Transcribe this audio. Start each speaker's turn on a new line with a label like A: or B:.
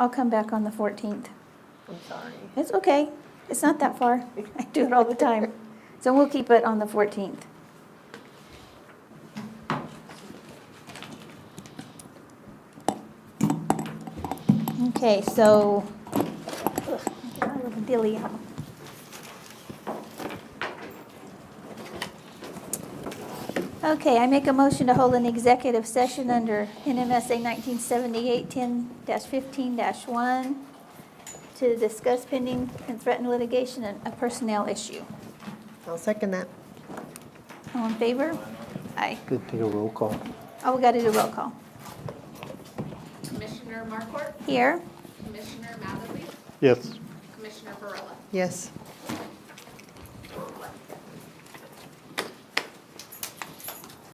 A: I'll come back on the 14th.
B: I'm sorry.
A: It's okay. It's not that far. I do it all the time. So we'll keep it on the 14th. Okay, so, ugh, I love a dilly. Okay, I make a motion to hold an executive session under NMSA 1978-10-15-1 to discuss pending and threatened litigation and a personnel issue.
B: I'll second that.
A: All in favor? Aye.
C: Good, take a roll call.
A: Oh, we got to do roll call.
D: Commissioner Markort,
A: Here.
D: Commissioner Matherly,
C: Yes.
D: Commissioner Barilla.
B: Yes.